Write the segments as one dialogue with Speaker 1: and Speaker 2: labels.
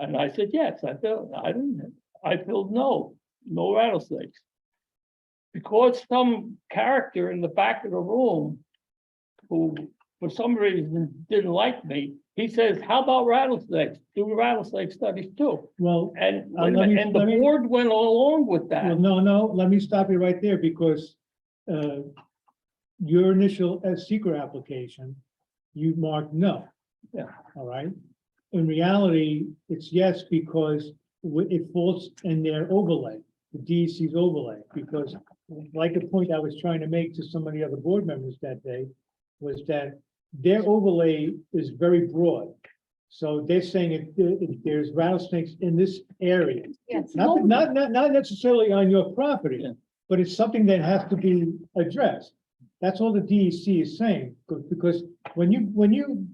Speaker 1: And I said, yes, I filled, I didn't, I filled no, no rattlesnakes. Because some character in the back of the room who, for some reason, didn't like me, he says, how about rattlesnakes? Do rattlesnake studies too.
Speaker 2: Well,
Speaker 1: And,
Speaker 2: Uh, let me-
Speaker 1: and the
Speaker 2: let me-
Speaker 1: board went along with
Speaker 2: well,
Speaker 1: that.
Speaker 2: no, no, let me stop you right there because uh, your initial uh, seeker application, you marked no.
Speaker 1: Yeah.
Speaker 2: All right. In reality, it's yes because wi- it falls in their overlay, the DEC's overlay, because like the point I was trying to make to some of the other board members that day was that their overlay is very broad. So they're saying if- if there's rattlesnakes in this area,
Speaker 3: Yes.
Speaker 2: Not, not, not, not necessarily on your property,
Speaker 1: Yeah.
Speaker 2: but it's something that has to be addressed. That's all the DEC is saying, be- because when you, when you,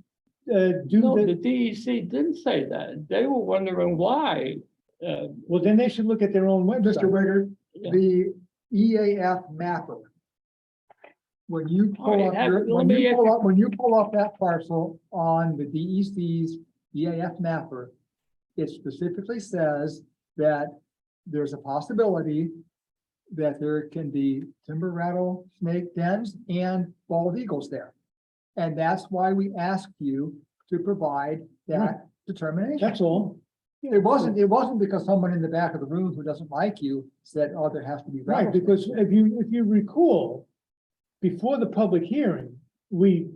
Speaker 2: uh, do
Speaker 1: No, the
Speaker 2: the,
Speaker 1: DEC didn't say that. They were wondering why. uh,
Speaker 2: well, then they should look at their own
Speaker 4: Mr.
Speaker 2: website.
Speaker 4: Wigger,
Speaker 1: Yeah.
Speaker 4: the EAF mapper. When you
Speaker 1: All
Speaker 4: pull
Speaker 1: right,
Speaker 4: up,
Speaker 1: have-
Speaker 4: your-
Speaker 1: let
Speaker 4: when
Speaker 1: me
Speaker 4: you
Speaker 1: ask
Speaker 4: pull
Speaker 1: you-
Speaker 4: up, when you pull up that parcel on the E DEC's EAF E mapper, it specifically says that there's a possibility that there can be timber rattlesnake dens and bald eagles there. And that's why we asked you to provide that determination.
Speaker 2: That's all.
Speaker 4: It wasn't, it wasn't because someone in the back of the room who doesn't like you said, oh, there has to be.
Speaker 2: Right,
Speaker 4: rattlesnakes."
Speaker 2: because if you, if you recall, before the public hearing, we,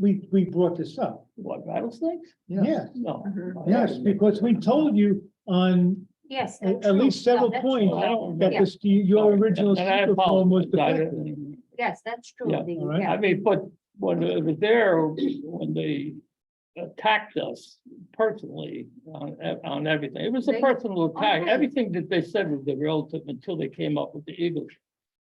Speaker 2: we, we brought this up.
Speaker 1: What, rattlesnakes?
Speaker 2: Yes,
Speaker 1: No.
Speaker 3: Mhm.
Speaker 2: yes, because we told you on
Speaker 3: Yes.
Speaker 2: at
Speaker 3: that's
Speaker 2: at
Speaker 3: true.
Speaker 2: least
Speaker 3: No,
Speaker 2: several
Speaker 3: that's
Speaker 2: points
Speaker 3: true.
Speaker 1: I don't
Speaker 2: that
Speaker 1: remember.
Speaker 2: this,
Speaker 1: No,
Speaker 2: your original
Speaker 1: and I
Speaker 2: seeker form was
Speaker 1: apologize. I
Speaker 2: defective.
Speaker 1: didn't-
Speaker 3: Yes, that's true.
Speaker 1: Yeah,
Speaker 3: The-
Speaker 2: all right.
Speaker 3: yeah.
Speaker 1: I mean, but when it was there, when they attacked us personally on, ev- on everything, it was a
Speaker 3: They-
Speaker 1: personal attack.
Speaker 3: Okay.
Speaker 1: Everything that they said was the relative until they came up with the Eagles.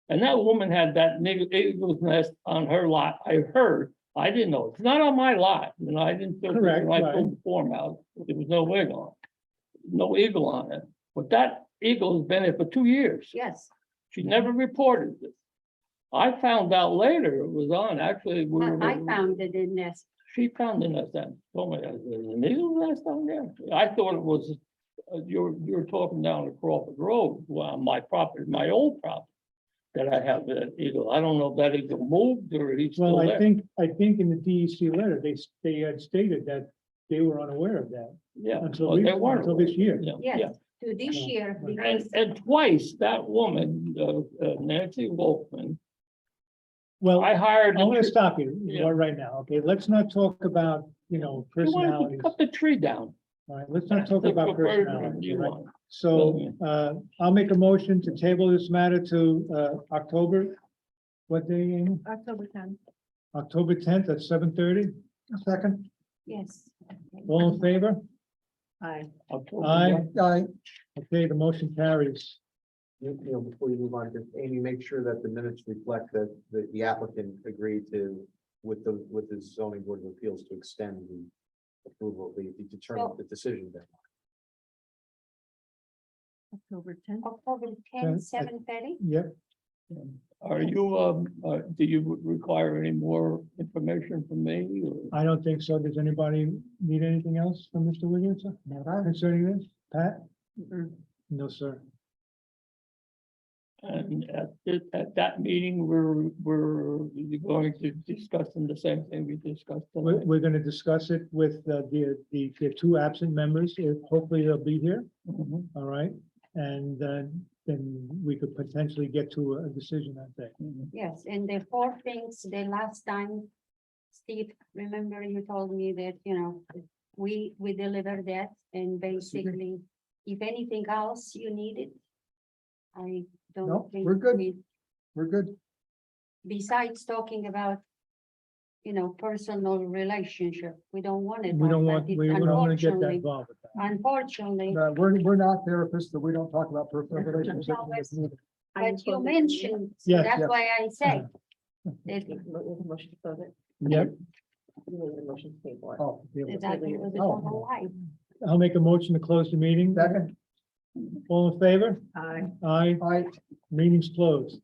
Speaker 1: And that woman had that nigger- eagle's nest on her lot. I heard, I didn't know. It's not on my lot. You know, I didn't. feel-
Speaker 2: Correct,
Speaker 1: when I
Speaker 2: right.
Speaker 1: pulled the form out. There was no wig on. it, No eagle on it. But that eagle has been there for two years.
Speaker 3: Yes,
Speaker 1: She never reported it. I found out later it was on, actually, we
Speaker 3: I,
Speaker 1: were.
Speaker 3: I found it in this.
Speaker 1: She found it at that, told me, I said, an eagle nest down there? I thought it was, uh, you're, you're talking down the Crawford Road, well, my property, my old property. That I have that eagle, I don't know if that eagle moved or he's still
Speaker 2: Well, I
Speaker 1: there,
Speaker 2: think, I think in the DEC letter, they, s- they had stated that they were unaware of that
Speaker 1: yeah,
Speaker 2: until,
Speaker 1: but
Speaker 2: we-
Speaker 1: they weren't.
Speaker 2: until this year.
Speaker 1: Yeah, yeah.
Speaker 3: Yes, to this
Speaker 2: Yeah.
Speaker 3: year.
Speaker 2: And-
Speaker 1: And,
Speaker 3: because-
Speaker 1: and twice that woman, uh, uh, Nancy Wolfman,
Speaker 2: Well,
Speaker 1: I
Speaker 2: I
Speaker 1: hired. a
Speaker 2: want to
Speaker 1: tree-
Speaker 2: stop you
Speaker 1: Yeah.
Speaker 2: right- right now, okay? Let's not talk about, you know,
Speaker 1: She wanted
Speaker 2: personalities.
Speaker 1: to
Speaker 2: All
Speaker 1: Cut the tree down.
Speaker 2: right, let's not talk about
Speaker 1: Whatever
Speaker 2: personalities.
Speaker 1: you
Speaker 2: all right?
Speaker 1: want.
Speaker 2: So uh, I'll make a motion to table this matter to uh, October, what day, Amy?
Speaker 3: October tenth.
Speaker 2: October tenth at seven thirty? Second.
Speaker 3: Yes.
Speaker 2: All in favor?
Speaker 3: Aye.
Speaker 1: October
Speaker 2: Aye.
Speaker 1: one.
Speaker 4: I,
Speaker 2: Okay, the motion carries.
Speaker 5: You you know, before you move on, just Amy, make sure that the minutes reflect that, that the applicant agreed to, with the, with the zoning board of appeals to extend the approval, the, the determine the decision then.
Speaker 3: October tenth. October tenth, seven thirty?
Speaker 2: Yep,
Speaker 1: Are you, um, uh, do you require any more information from me? or-
Speaker 2: I don't think so. Does anybody need anything else from Mr. Williams concerning this? Pat? No, sir.
Speaker 1: And at, thi- at that meeting, we're, we're going to discussing the same thing we discussed.
Speaker 2: We're,
Speaker 1: tonight.
Speaker 2: we're gonna discuss it with uh, the, the, the two absent members. If- Hopefully they'll be here,
Speaker 1: Mhm.
Speaker 2: all right? And uh, then we could potentially get to a decision that day.
Speaker 3: Yes, and the four things, the last time, Steve, remember you told me that, you know, we, we deliver that and basically, if anything else you needed, I
Speaker 4: No,
Speaker 3: don't think
Speaker 4: we're good.
Speaker 3: we-
Speaker 4: we're good.
Speaker 3: besides talking about, you know, personal relationship, we don't want it.
Speaker 2: We don't
Speaker 3: like
Speaker 2: want,
Speaker 3: that. It-
Speaker 2: we don't wanna get that
Speaker 3: unfortunately-
Speaker 2: involved with that.
Speaker 3: Unfortunately,
Speaker 4: No, Uh, We're, we're not therapists, so we don't talk about personal relationships. in this meeting.
Speaker 3: but you mentioned, so
Speaker 2: Yes,
Speaker 3: that's
Speaker 4: yes.
Speaker 3: why I say. that
Speaker 6: Motion to close it.
Speaker 2: Yep,
Speaker 6: You made the motion to table it.
Speaker 4: Oh, yeah.
Speaker 3: that that was the
Speaker 4: Oh.
Speaker 3: whole life.
Speaker 2: I'll make a motion to close the meeting.
Speaker 4: Second,
Speaker 2: All in favor?
Speaker 6: Aye.
Speaker 2: Aye,
Speaker 4: I,
Speaker 2: meeting's closed.